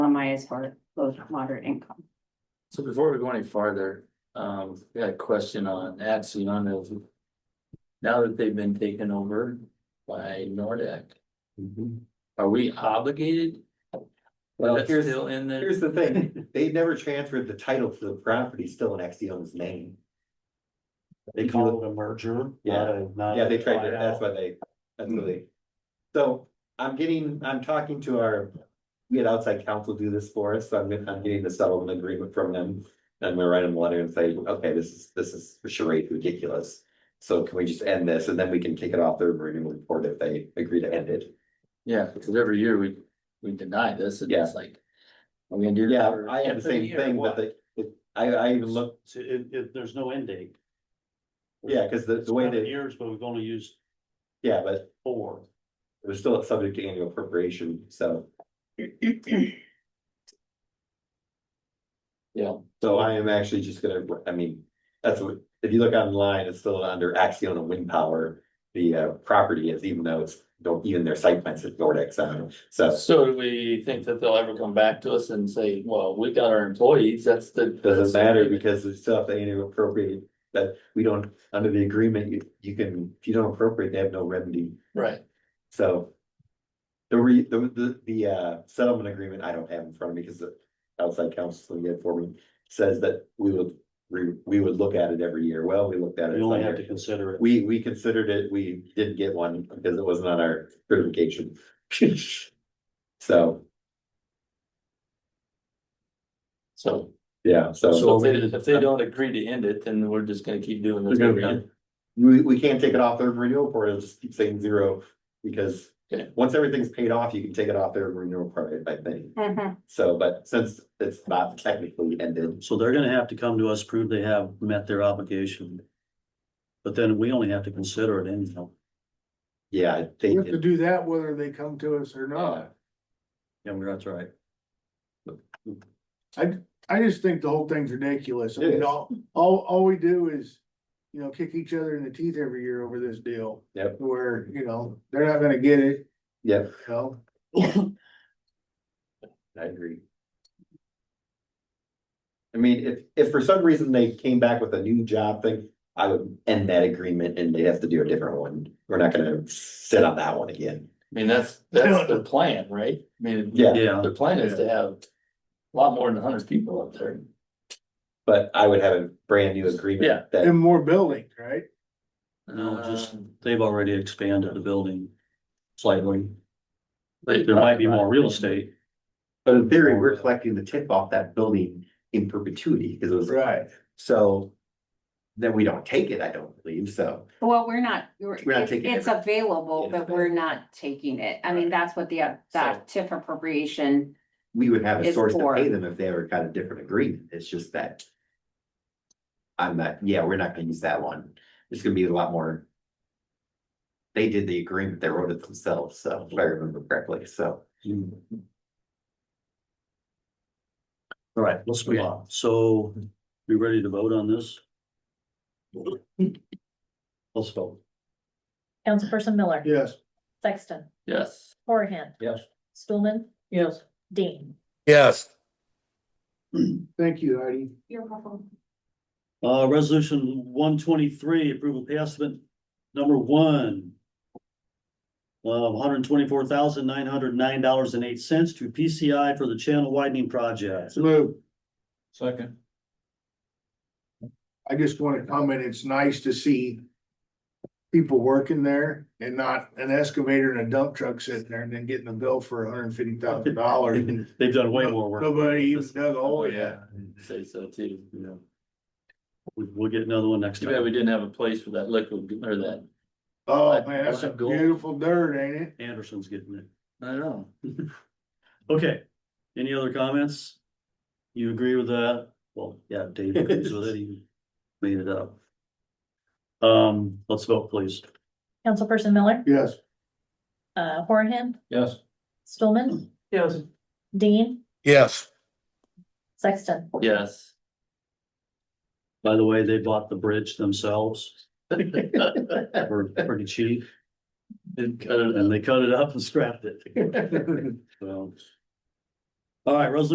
is for low to moderate income. So before we go any farther, um, we got a question on Axion of. Now that they've been taken over by Nordic, are we obligated? Well, Is that here's- still in there? Here's the thing, they never transferred the title to the property, still in Exion's name. They call it a merger. Yeah. it, not yeah, they a tried to, buyout. that's why they, that's why they. So I'm getting, I'm talking to our, we had outside counsel do this for us, so I'm, getting- I'm getting the settlement agreement from them. And I'm gonna write them a letter and say, okay, this is, this is charade ridiculous. So can we just end this and then we can take it off their renewal report if they agree to end it? Yeah, because every year we, we deny this and it's like. Are we gonna do? that Yeah, for- I had the same Yeah, thing, but they, it- I, I even looked, So it, it, there's no end date. yeah, cause the, the way Seven they, Years, but we've only used yeah, but four. It was still subject to annual appropriation, so, Yeah, so I am actually just gonna, I mean, that's what, if you look online, it's still under Axion and Wind Power. The uh property is, even though it's, don't, even their site plans at Nordex, um, so so do we think that they'll ever come back to us and say, well, we got our employees, that's the. it doesn't matter because we still have to annual appropriate. That we don't, under the agreement, you you can, if you don't appropriate, they have no remedy, Right, so. The re, the the the uh settlement agreement, I don't have in front of me because the outside counsel we had for me says that we would. We we would look at it every year. Well, we looked at it. You only it's not have to there. consider it. We we considered it. We didn't get one because it wasn't on our certification. So, so, yeah, so so if they, if they don't agree to end it, then we're just gonna keep doing this. every year. we we can't take it off their renewal report. It'll just keep saying zero. Because Okay. once everything's paid off, you can take it off their renewal report, I think. Mhm. So, but since it's not technically ended, So they're gonna have to come to us, prove they have met their obligation. But then we only have to consider it anyhow. yeah, I We think. have to do that whether they come to us or not. Yeah, that's right. I just think the whole thing's ridiculous. I It mean, is. all, all, all we do is, you know, kick each other in the teeth every year over this deal. Yep. Where, you know, they're not gonna get it, Yeah, you know? I agree. I mean, if, if for some reason they came back with a new job thing, I would end that agreement and they'd have to do a different one. We're not gonna sit on that one again. I mean, that's, that's the plan, right? I mean, Yeah, Yeah, the plan is to have a lot more than hundred people up there. but I would have a brand new Yeah. agreement And that, more buildings, right? No, just- Um, they've already expanded the building slightly. There might be more real estate. but in theory, we're collecting the tip off that building in perpetuity because it was. Right. So then we don't take it, I don't believe, so. Well, we're not, we're- We're not it's taking it's every- available, but we're not taking it. I mean, that's what the, uh, that TIF appropriation, we would have a It's source to for- pay them if they ever got a different agreement, it's just that. I'm not, yeah, we're not gonna use that one, it's gonna be a lot more. They did the agreement, they wrote it themselves, so if I remember correctly, so. All right, let's move on. So you ready to vote on this? Let's vote. Councilperson Miller. Yes. Sexton. Yes, Horahan. Yes. Stulman. Yes. Dean. Yes, Thank you, Heidi. you're welcome. Uh, resolution one twenty-three, approval pay estimate number one. Of one hundred twenty-four thousand nine hundred nine dollars and eight cents to PCI for the channel widening project. Lou, second. I just wanna comment, it's nice to see people working there and not an excavator and a dump truck sitting there and then getting a bill for hundred and fifty thousand dollars. They've done way more work. Nobody even dug a hole yet. Say so too, you know. We- We'll get another one next Too bad time. we didn't have a place for that liquid or that. Oh, man, that's some Black gold. beautiful dirt, ain't it? Anderson's getting it. I don't know. Okay, any other comments? You agree with that? Well, yeah, Dave agrees with it. He made it up. Um, let's vote, please. Councilperson Miller. Yes. Uh, Horahan. Yes. Stulman. Yes. Dean. yes. Sexton. Yes. By the way, they bought the bridge themselves Didn't for pretty cheap cut it out. and they cut it up and scrapped it. So. All right, resolution